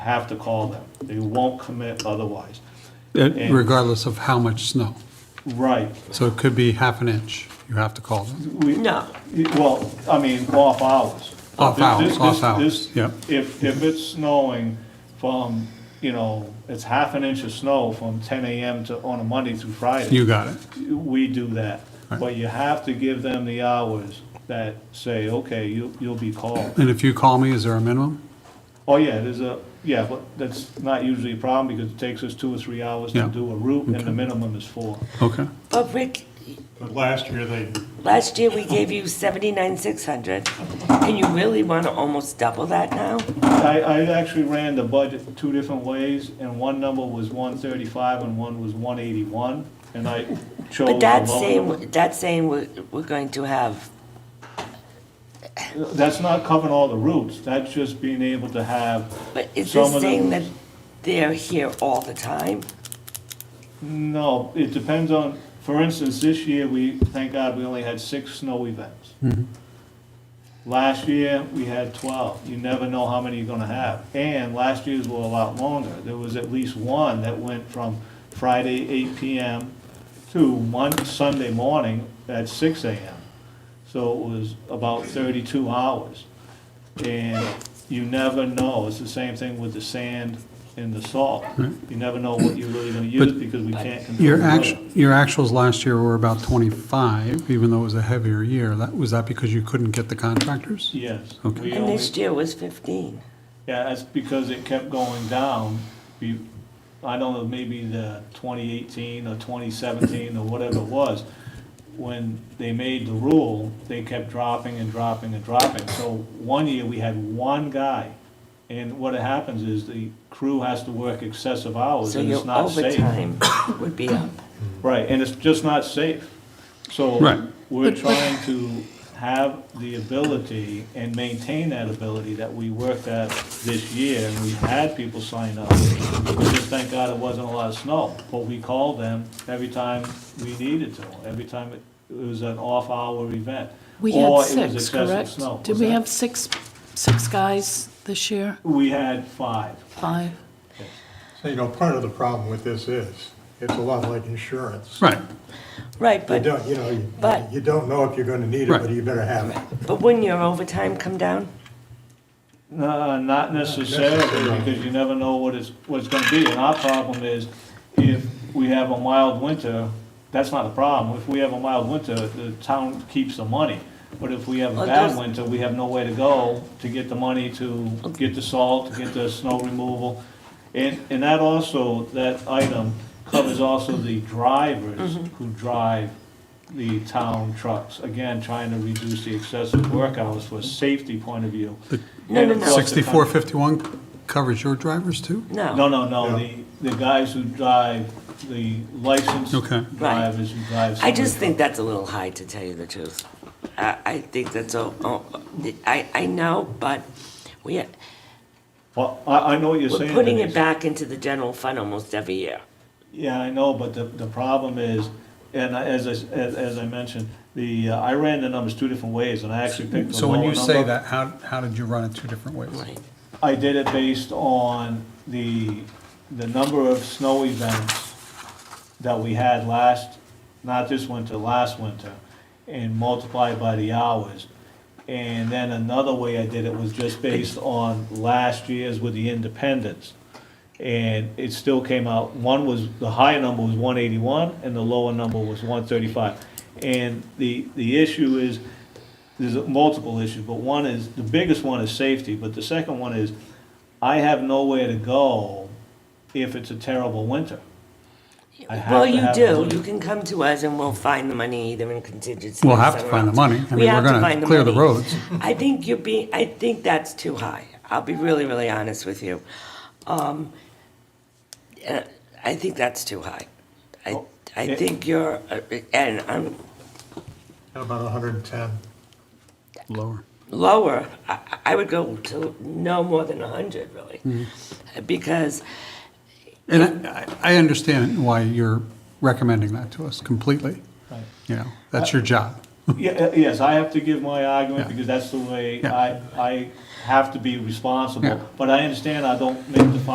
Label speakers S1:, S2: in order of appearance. S1: have to call them. They won't commit otherwise.
S2: Uh,
S1: And-
S2: regardless of how much snow.
S1: Right.
S2: So it could be half an inch, you have to call them.
S1: We-
S3: No.
S1: Well, I mean, off hours.
S2: Off
S1: This-
S2: hours,
S1: this-
S2: off
S1: this-
S2: hours,
S1: this-
S2: yeah.
S1: If, if it's snowing from, you know, it's half an inch of snow from ten AM to, on a Monday through Friday.
S2: You got it.
S1: we do that.
S2: Right.
S1: But you have to give them the hours that say, okay, you, you'll be called.
S2: And if you call me, is there a minimum?
S1: Oh, yeah, there's a, yeah, but that's not usually a problem because it takes us two or three hours to
S2: Yeah.
S1: do a route and the
S2: Okay.
S1: minimum is four.
S2: Okay.
S3: But Oh, Rick,
S4: But last year, they,
S3: last year we gave you seventy-nine, six hundred, and you really want to almost double that now?
S1: I, I actually ran the budget two different ways and one number was one thirty-five and one was one eighty-one. And I chose the
S3: But that's
S1: lower.
S3: saying, that's saying we're, we're going to have,
S1: That's not covering all the routes. That's just being able to have,
S3: but is
S1: Some
S3: this
S1: of
S3: saying
S1: them-
S3: that they're here all the time?
S1: no, it depends on, for instance, this year, we, thank God, we only had six snow events. Last year, we had 12. You never know how many you're going to have. And last year's were a lot longer. There was at least one that went from Friday, 8 PM to one Sunday morning at 6 AM. So it was about 32 hours. And you never know. It's the same thing with the sand and the salt. You never know what you're really going to use
S2: But-
S1: because we can't control.
S2: Your
S1: the
S2: act,
S1: weather.
S2: your actuals last year were about 25, even though it was a heavier year. That, was that because you couldn't get the contractors?
S1: Yes.
S2: Okay.
S1: We
S3: And
S1: only-
S3: this year was fifteen.
S1: Yeah, that's because it kept going down. We, I don't know, maybe the twenty eighteen or twenty seventeen or whatever it was. When they made the rule, they kept dropping and dropping and dropping. So one year, we had one guy. And what happens is the crew has to work excessive hours
S3: So
S1: and it's
S3: your
S1: not safe.
S3: overtime would be up.
S1: Right, and it's just not safe. So
S2: Right.
S1: we're trying to have the ability and maintain that ability that we worked at this year, and we had people sign up. We Just thank God it wasn't a lot of snow, but we called them every time we needed to, every time it it was an off-hour event.
S5: We
S1: or
S5: had
S1: it was
S5: six,
S1: excessive
S5: correct?
S1: snow.
S5: Did
S1: Was
S5: we
S1: that-
S5: have six, six guys this year?
S1: We had five.
S5: Five?
S4: so, you know, part of the problem with this is, it's a lot like insurance.
S2: Right.
S3: Right,
S4: You
S3: but,
S4: don't, you know, you-
S3: But-
S4: you don't know if you're gonna need it,
S2: Right.
S4: but you better have it.
S3: but wouldn't your overtime come down?
S1: Uh, not necessarily,
S4: necessarily.
S1: because you never know what it's, what it's gonna be, and our problem is, if we have a mild winter, that's not a problem, if we have a mild winter, the town keeps the money. But if we have a
S3: Well,
S1: bad
S3: those-
S1: winter, we have nowhere to go to get the money to get the salt, to get the snow removal. And, and that also, that item covers also the drivers who drive the town trucks. Again, trying to reduce the excessive work hours for a safety point of view.
S3: No, no,
S1: And of
S3: no.
S1: course, the
S2: 6451 covers your drivers too?
S1: no,
S3: No.
S1: no, no, the, the guys who drive, the licensed
S2: Okay.
S1: drivers who drive.
S3: I just think that's a little high, to tell you the truth. I, I think that's, all- all- I, I know, but we,
S1: Well, I, I know what you're
S3: We're
S1: saying.
S3: putting
S1: Denise.
S3: it back into the general fund almost every year.
S1: Yeah, I know, but the, the problem is, and I- as I, s- as, as I mentioned, the, uh, I ran the numbers two different ways, and I actually picked the
S2: So
S1: lower
S2: when
S1: number.
S2: you say that, how, how did you run it two different ways?
S3: Right.
S1: I did it based on the, the number of snow events that we had last, not this winter, last winter, and multiplied by the hours. And then another way I did it was just based on last year's with the independents. And it still came out, one was, the higher number was one eighty-one, and the lower number was one thirty-five. And the, the issue is, there's multiple issues, but one is, the biggest one is safety, but the second one is, I have nowhere to go if it's a terrible winter. I have
S3: Well,
S1: to
S3: you
S1: have
S3: do,
S1: it.
S3: you can come to us and we'll find the money either in contingency.
S2: We'll
S3: or
S2: have to
S3: somewhere
S2: find the
S3: else.
S2: money. I
S3: We
S2: mean, we're
S3: have to
S2: gonna
S3: find
S2: clear the
S3: money.
S2: roads.
S3: I think you're being, I think that's too high. I'll be really, really honest with you. Um, uh, I think that's too high. I,
S1: Well,
S3: I
S1: it-
S3: think you're, uh, and I'm
S4: How About hundred and ten.
S2: Lower.
S3: lower, I, I would go to no more than hundred,
S2: Mm.
S3: really. Because
S2: And I, I I understand why you're recommending that to us completely.
S1: Right.
S2: You know, that's your job.
S1: Yeah, uh, yes, I have to give my argument
S2: Yeah.
S1: because that's the way
S2: Yeah.
S1: I, I have to be
S2: Yeah.
S1: responsible. But I understand I don't make the final